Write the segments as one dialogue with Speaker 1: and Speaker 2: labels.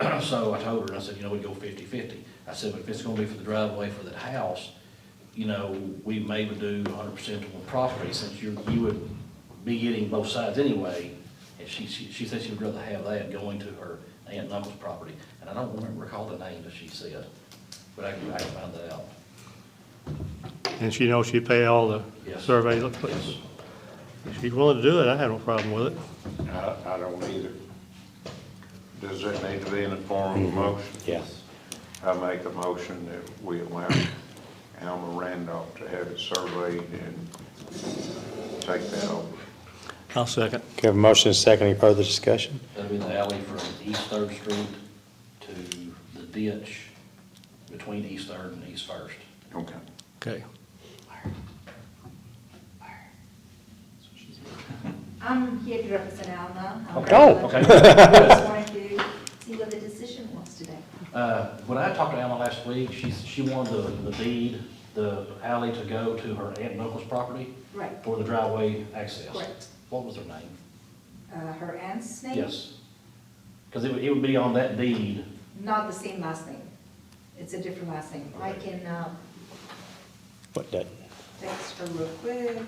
Speaker 1: So I told her, and I said, you know, we go fifty-fifty. I said, but if it's gonna be for the driveway for that house, you know, we maybe do hundred percent to one property, since you, you would be getting both sides anyway. And she, she, she said she would rather have that going to her aunt and uncle's property, and I don't remember, recall the name that she said, but I can, I can find that out.
Speaker 2: And she knows she pay all the
Speaker 1: Yes.
Speaker 2: survey, look, please. If she's willing to do it, I have no problem with it.
Speaker 3: I, I don't either. Does that need to be in the form
Speaker 4: Mm-hmm.
Speaker 3: of a motion?
Speaker 4: Yes.
Speaker 3: I make a motion that we allow Alma Randolph to have it surveyed and take that over.
Speaker 2: I'll second.
Speaker 4: Okay, have a motion and a second, any further discussion?
Speaker 1: That'll be the alley from East Third Street to the ditch between East Third and East First.
Speaker 3: Okay.
Speaker 2: Okay.
Speaker 5: I'm here to represent Alma.
Speaker 1: Okay. Oh, okay.
Speaker 5: I just wanted to see what the decision was today.
Speaker 1: Uh, When I talked to Alma last week, she, she wanted the the deed, the alley to go to her aunt and uncle's property
Speaker 5: Right,
Speaker 1: for the driveway access.
Speaker 5: Correct.
Speaker 1: What was her name?
Speaker 5: uh, her aunt's name?
Speaker 1: Yes. Because it would, it would be on that deed.
Speaker 5: Not the same last name. It's a different last name. I can uh,
Speaker 4: What, that,
Speaker 5: text her real quick.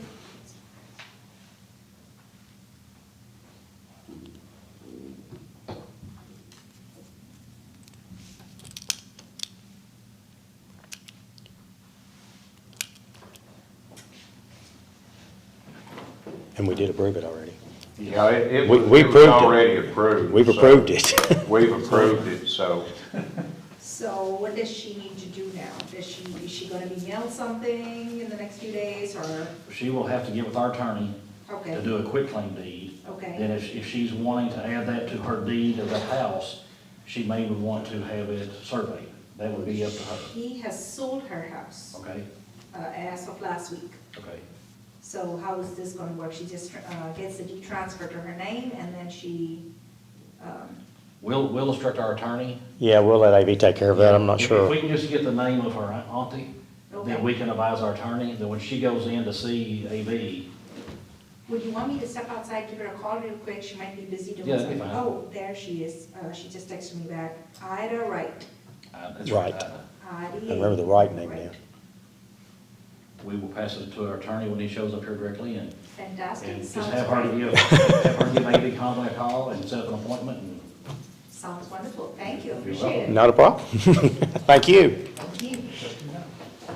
Speaker 4: and we did approve it already.
Speaker 3: Yeah, it, it
Speaker 4: We-
Speaker 3: was
Speaker 4: we
Speaker 3: it was
Speaker 4: approved it.
Speaker 3: already approved.
Speaker 4: We've
Speaker 3: so-
Speaker 4: approved it.
Speaker 3: We've approved it, so
Speaker 5: So what does she need to do now? Does she, is she gonna be mailed something in the next few days or,
Speaker 1: She will have to get with our attorney to
Speaker 5: okay,
Speaker 1: do a quick claim deed. Then
Speaker 5: okay,
Speaker 1: if, if she's wanting to add that to her deed of the house, she may would want to have it surveyed. That would be up to her.
Speaker 5: She has sold her house
Speaker 1: Okay,
Speaker 5: uh, as of last week.
Speaker 1: okay.
Speaker 5: So how is this gonna work? She just uh, gets the deed transferred to her name and then she, um,
Speaker 1: We'll, we'll instruct our attorney.
Speaker 4: Yeah, we'll let AV take care of that, I'm not
Speaker 1: If- If
Speaker 4: sure.
Speaker 1: we can just get the name of her auntie, then we
Speaker 5: okay.
Speaker 1: can advise our attorney, then when she goes in to see AV,
Speaker 5: Would you want me to step outside, give her a call real quick? She might be busy doing
Speaker 1: Yeah, that'd be
Speaker 5: something.
Speaker 1: fine.
Speaker 5: Oh, there she is. Uh, She just texted me back. Ida Wright.
Speaker 1: uh, that's right.
Speaker 4: Right.
Speaker 1: uh,
Speaker 5: I
Speaker 4: I remember the right name now.
Speaker 1: We will pass it to our attorney when he shows up here directly and,
Speaker 5: Fantastic.
Speaker 1: and just
Speaker 5: Sounds
Speaker 1: have her
Speaker 5: great.
Speaker 1: give, have her give AV Conley a call and set up an appointment and
Speaker 5: Sounds wonderful. Thank you.
Speaker 1: You're
Speaker 5: Appreciate it.
Speaker 4: Not a problem. Thank you.
Speaker 5: Thank you.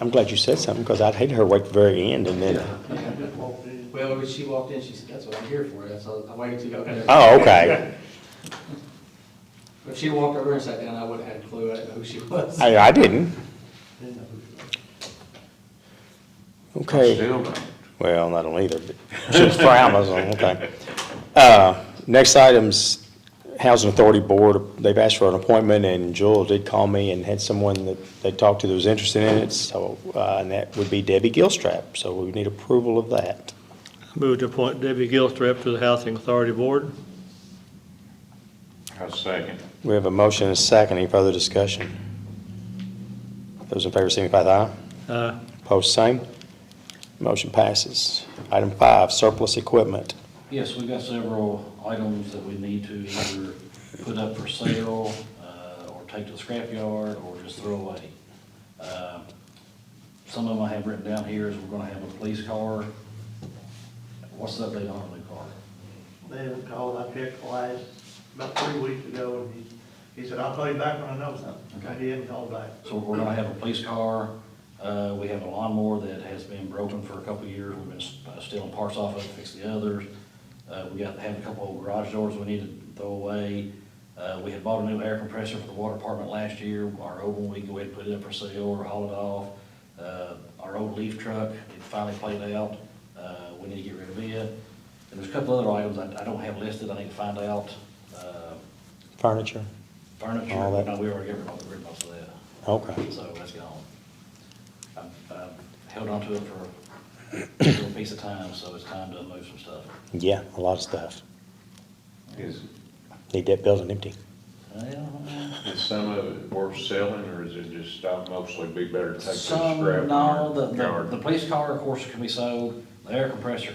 Speaker 4: I'm glad you said something, because I'd hate her wait the very end and then,
Speaker 6: Well, when she walked in, she said, that's what I'm here for, that's, all- I waited till you got there.
Speaker 4: oh, okay.
Speaker 6: If she'd walked over and sat down, I wouldn't have had a clue, I didn't know who she was.
Speaker 4: I, I didn't.
Speaker 6: Didn't know who she was.
Speaker 4: Okay,
Speaker 3: still don't.
Speaker 4: well, not on either, but she's for Amazon, okay. Uh, next item's Housing Authority Board, they've asked for an appointment, and Joel did call me and had someone that they talked to that was interested in it, so, uh, and that would be Debbie Gilstrap, so we need approval of that.
Speaker 2: Move to appoint Debbie Gilstrap to the Housing Authority Board.
Speaker 3: I second.
Speaker 4: We have a motion and a second, any further discussion? Those in favor signify with aye.
Speaker 2: Uh,
Speaker 4: Post same. Motion passes. Item five, surplus equipment.
Speaker 1: Yes, we've got several items that we need to either put up for sale, uh, or take to the scrapyard, or just throw away. Um, Some of them I have written down here is we're gonna have a police car. What's the update on the new car?
Speaker 7: They haven't called, I checked the last, about three weeks ago, and he, he said, I'll call you back when I know something.
Speaker 1: Okay.
Speaker 7: He hadn't called back.
Speaker 1: So we're gonna have a police car, uh, we have a lawnmower that has been broken for a couple of years, we've been uh, stealing parts off of it, fix the others. Uh, we got, have a couple old garage doors we need to throw away. Uh, we had bought a new air compressor for the water department last year, our old one, we can go ahead and put it up for sale or haul it off. Uh, our old leaf truck, it finally played out, uh, we need to get rid of it. And there's a couple other items I, I don't have listed, I need to find out, uh,
Speaker 4: Furniture?
Speaker 1: furniture,
Speaker 4: All that-
Speaker 1: no, we already got rid of- rid of most of that.
Speaker 4: Okay.
Speaker 1: So that's gone. I've, I've held on to it for a little piece of time, so it's time to move some stuff.
Speaker 4: Yeah, a lot of stuff.
Speaker 3: Is,
Speaker 4: Need that building empty.
Speaker 1: Well,
Speaker 3: is some of it worth selling, or is it just stop mostly be better to take the
Speaker 1: Some,
Speaker 3: scrap?
Speaker 1: no, the, the,
Speaker 3: yard?
Speaker 1: the police car, of course, can be sold, the air compressor